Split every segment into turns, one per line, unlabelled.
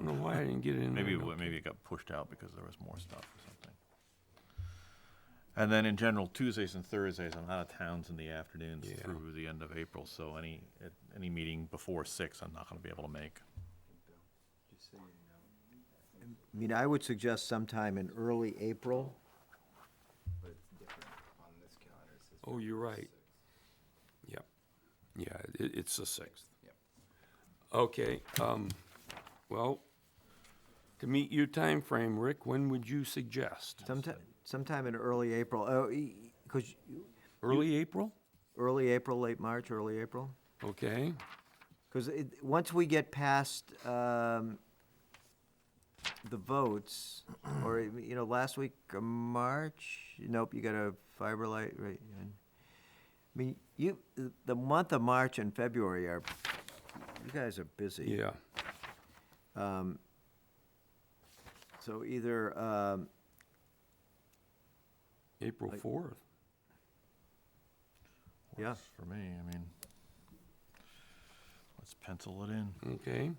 why I didn't get it in there.
Maybe, it
no
wa- maybe it got pushed out because there was more stuff or something. And then in general, Tuesdays and Thursdays, I'm out of towns in the afternoons
Yeah.
through the end of April, so any, at- any meeting before six, I'm not gonna be able to make.
I mean, I would suggest sometime in early April.
Oh, you're right. Yep. Yeah, it, it's the sixth.
Yep.
Okay, um, well, to meet your time frame, Rick, when would you suggest?
Sometime, sometime in early April, oh, because,
Early April?
early April, late March, early April?
Okay,
Because it, once we get past, um, the votes, or, you know, last week of March, nope, you got a fiber light, right? yeah. I mean, you, the month of March and February are, you guys are busy. Um,
yeah.
So either, um,
April fourth.
Yeah.
Works For me, I mean, let's pencil it in.
Okay,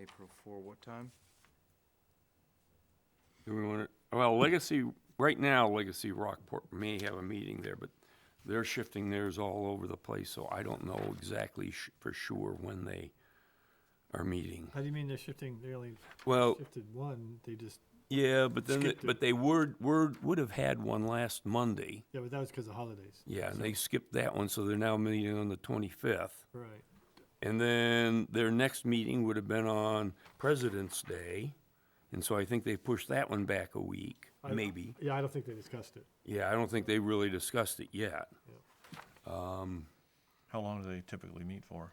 April four, what time?
do we want to, well, Legacy, right now, Legacy Rockport may have a meeting there, but they're shifting theirs all over the place, so I don't know exactly sh- for sure when they are meeting.
How do you mean they're shifting, they only
Well,
shifted one, they just,
Yeah, but then, they-
Skipped it.
but they were, were, would have had one last Monday.
yeah, but that was because of holidays.
Yeah, and they skipped that one, so they're now meeting on the twenty-fifth.
Right.
And then their next meeting would have been on President's Day, and so I think they pushed that one back a week,
I-
maybe.
Yeah, I don't think they discussed it.
Yeah, I don't think they really discussed it yet.
How long do they typically meet for?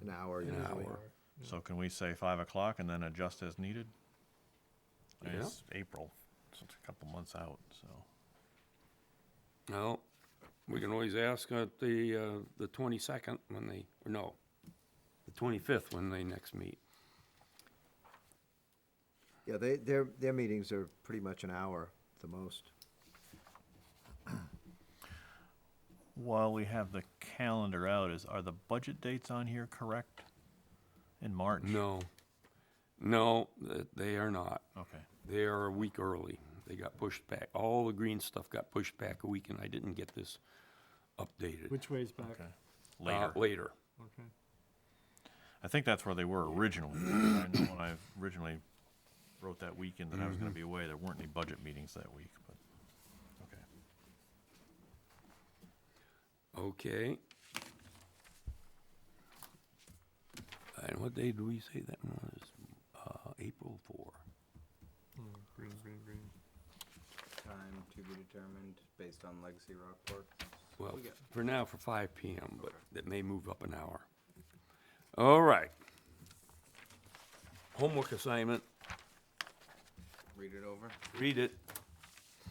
an hour,
An
usually.
hour.
So can we say five o'clock and then adjust as needed? I mean,
Yeah.
It's April, so it's a couple months out, so.
No, we can always ask at the, uh, the twenty-second when they, or no, the twenty-fifth when they next meet.
Yeah, they, their, their meetings are pretty much an hour, at the most.
While we have the calendar out, is, are the budget dates on here correct? In March?
No, no, th- they are not.
Okay.
They are a week early. They got pushed back. All the green stuff got pushed back a week, and I didn't get this updated.
Which way's back?
Okay.
Uh,
Later.
Later.
Okay.
I think that's where they were originally. I know when I originally wrote that weekend that I was gonna
Mm-hmm.
be away, there weren't any budget meetings that week, but, okay.
Okay. And what day do we say that one was? Uh, April four.
Hmm, Green, green, green.
Time to be determined based on Legacy Rockport.
Well,
We got-
for now, for five PM, but that may move up an hour. All right. Homework assignment,
Read it over.
read it.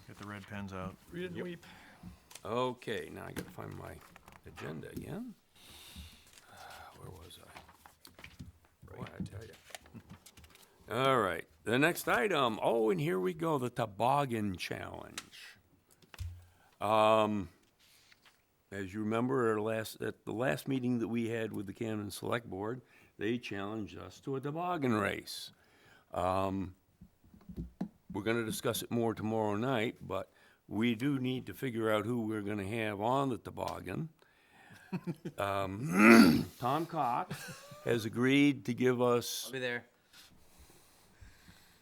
Get the red pens out.
Read it and weep.
Okay, now I gotta find my agenda again. Uh, Where was I? Boy, I tell ya. All right, the next item, oh, and here we go, the toboggan challenge. Um, as you remember, our last, at the last meeting that we had with the Camden Select Board, they challenged us to a toboggan race. We're gonna discuss it more tomorrow night, but we do need to figure out who we're gonna have on the toboggan. Um, Tom Cox has agreed to give us,
I'll be there.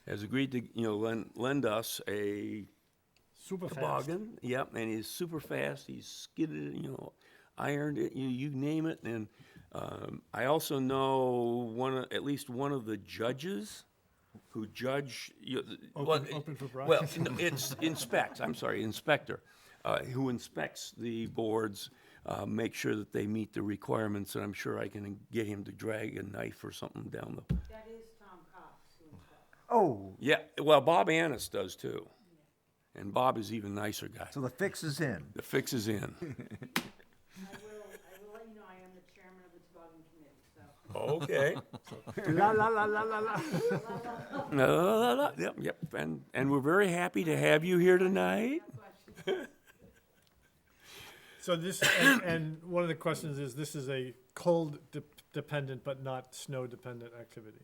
has agreed to, you know, lend, lend us a
Super fast.
toboggan. Yep, and he's super fast, he's skidded, it, you know, ironed it, you, you name it, and, um, I also know one, of- at least one of the judges who judge, you, well,
Open- open for
Well,
bribes.
no, it's inspects, I'm sorry, inspector, uh, who inspects the boards, uh, make sure that they meet the requirements, and I'm sure I can get him to drag a knife or something down the,
That is Tom Cox who inspects.
Oh,
yeah, well, Bob Annis does too. And Bob is even nicer guy.
so the fix is in.
The fix is in.
I will, I will let you know, I am the chairman of the toboggan committee, so.
Okay.
La, la, la, la, la, la.
La, la, la, la. Yep, yep, and, and we're very happy to have you here tonight.
So this, and, and one of the questions is, this is a cold de- dependent but not snow dependent activity.